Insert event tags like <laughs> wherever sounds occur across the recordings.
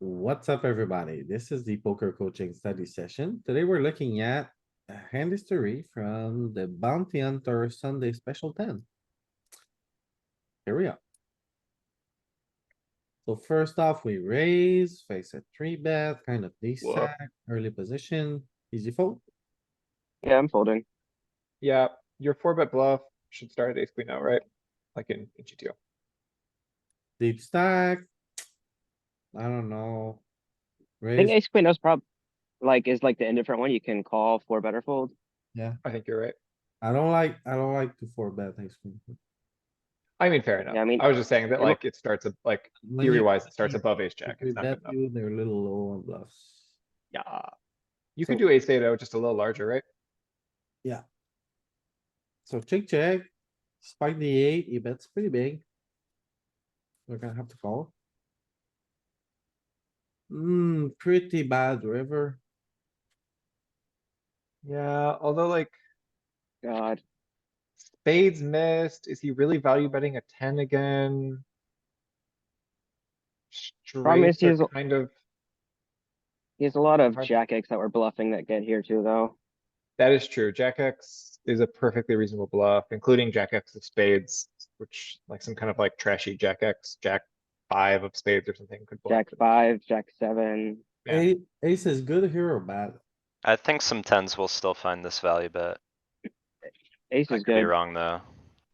What's up, everybody? This is the poker coaching study session. Today we're looking at a hand history from the Bounty Hunter Sunday Special Ten. Here we are. So first off, we raise, face a three bet, kind of these Whoa. sack, early position, easy fold. Yeah, I'm folding. Yeah, your four bet bluff should start at ace queen now, right? Like in in GTO. Deep stack. I don't know. I Raise, think ace queen knows prob, like, is like the indifferent one. You can call four better fold. I think you're right. I don't like, I don't like to four bet ace queen. I mean, fair enough. I mean, I was just saying that it look- like it starts ab- like When you- theory wise, <laughs> it starts you- above ace jack. if we It's not good bet enough. you, they're a little low on bluffs. Yeah. You could do ace eight oh, just a little larger, right? So check, check. Spike the eight, he bets pretty big. We're gonna have to call. Hmm, pretty bad river. Yeah, although like God, spades missed, is he really value betting a ten again? is Straights he's- are kind of, he has a lot of Hard- jack X that we're bluffing that get here too, though. that is true. Jack X is a perfectly reasonable bluff, including Jack X of spades, which like some kind of like trashy Jack X, Jack five of spades or something could bluff. Jack it. five, jack seven. Yeah. Ace, ace is good here or bad? I think some tens will still find this value bet. Ace I is could be good. wrong, though.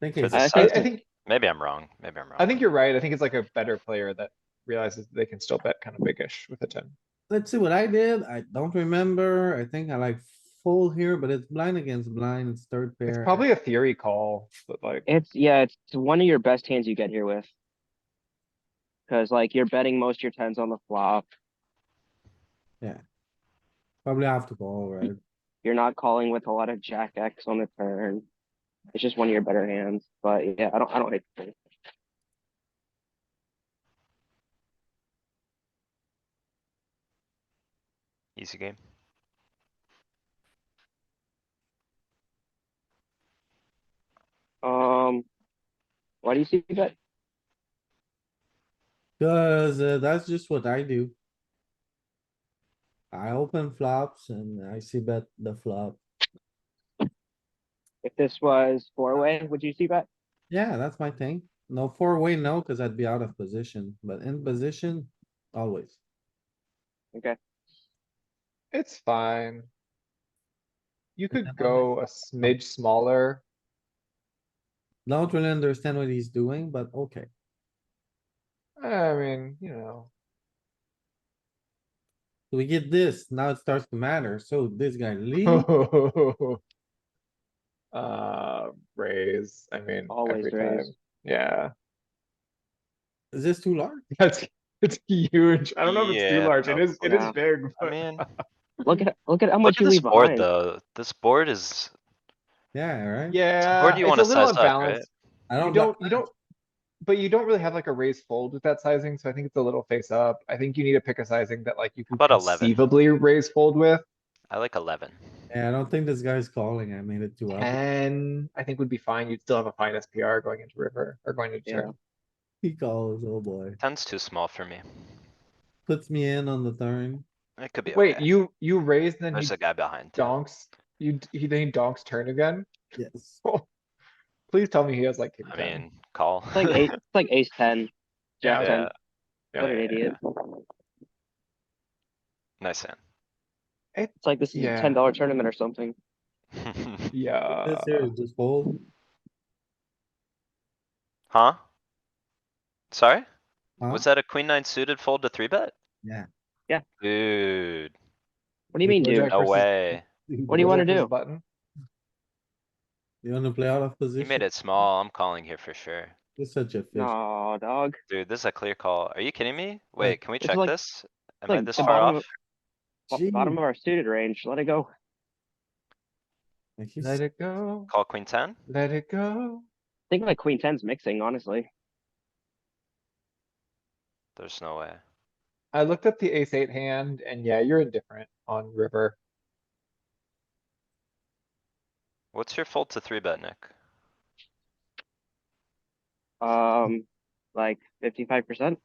Think For ace- the I I, I size. size, think, maybe I'm wrong, maybe I'm wrong. I think you're right. I think it's like a better player that realizes they can still bet kind of bigish with a ten. Let's see what I did. I don't remember. I think I like full here, but it's blind against blind. It's third pair. It's probably a theory call, but like, It's, yeah, it's one of your best hands you get here with. Cause like you're betting most of your tens on the flop. Probably have to call, right? You're not calling with a lot of jack X on the turn. It's just one of your better hands, but yeah, I don't, I don't hate. the thing. Easy game. Um, why do you see that? Cause uh, that's just what I do. I open flops and I see bet the flop. If this was four way, would you see that? Yeah, that's my thing. No four way, no, cuz I'd be out of position, but in position, always. Okay, it's fine. You But then I'm could like- go a smidge smaller. Don't really understand what he's doing, but okay. I mean, you know, We get this, now it starts to matter. So this guy <laughs> leaves, uh, raise, I mean, always every time. raise. Yeah, is this too large? <laughs> that's, it's huge. I don't know if it's too Yeah, large. It is, it is yeah. big, I but mean, Look at, look at how look much at you this leave board, behind. though. This board is, Yeah, right? yeah. where do you it's wanna a little size up, right? unbalanced. I You don't, don't, know. you don't, but you don't really have like a raise fold with that sizing, so I think it's a little face up. I think you need to pick a sizing that like you can About 11. conceivably raise fold with. I like eleven. yeah, I don't think this guy's calling. I made it too up. Ten, I think would be fine. You'd still have a fine SPR going into river or going into. Yeah. turn. He calls, oh boy. Ten's too small for me. Puts me in on the turn. It could be Wait, okay. you, you raise and then he There's a guy behind. donks, you, d- he then he donks turn again? Yes. Please tell me he has like. king I ten. mean, call. It's like eight, it's like ace <laughs> ten, jack <laughs> Yeah. ten. Yeah, What an yeah, idiot. Nice hand. It's like this is a Yeah. ten dollar tournament or something. Yeah, Uh, This here is just fold. <laughs> Huh? Sorry? huh? Was that a queen nine suited fold to three bet? Yeah. Yeah. Dude, What do you mean, Big dude? Jack no versus- way. What do you Those are wanna his do? Button. You wanna play out of He position? made it small. I'm calling here for sure. You're such a fish. No, dog. Dude, this is a clear call. Are you kidding me? Wait, can we it's check like- this? Am I like this the far bottom off? of- Bo- Bottom Gee. of our suited range. Let it go. Like, he's- Let it go, Call queen ten? let it go. I think like queen ten's mixing, honestly. There's no way. I looked up the ace eight hand and yeah, you're indifferent on river. What's your fold to three bet, Nick? Um, like fifty-five percent.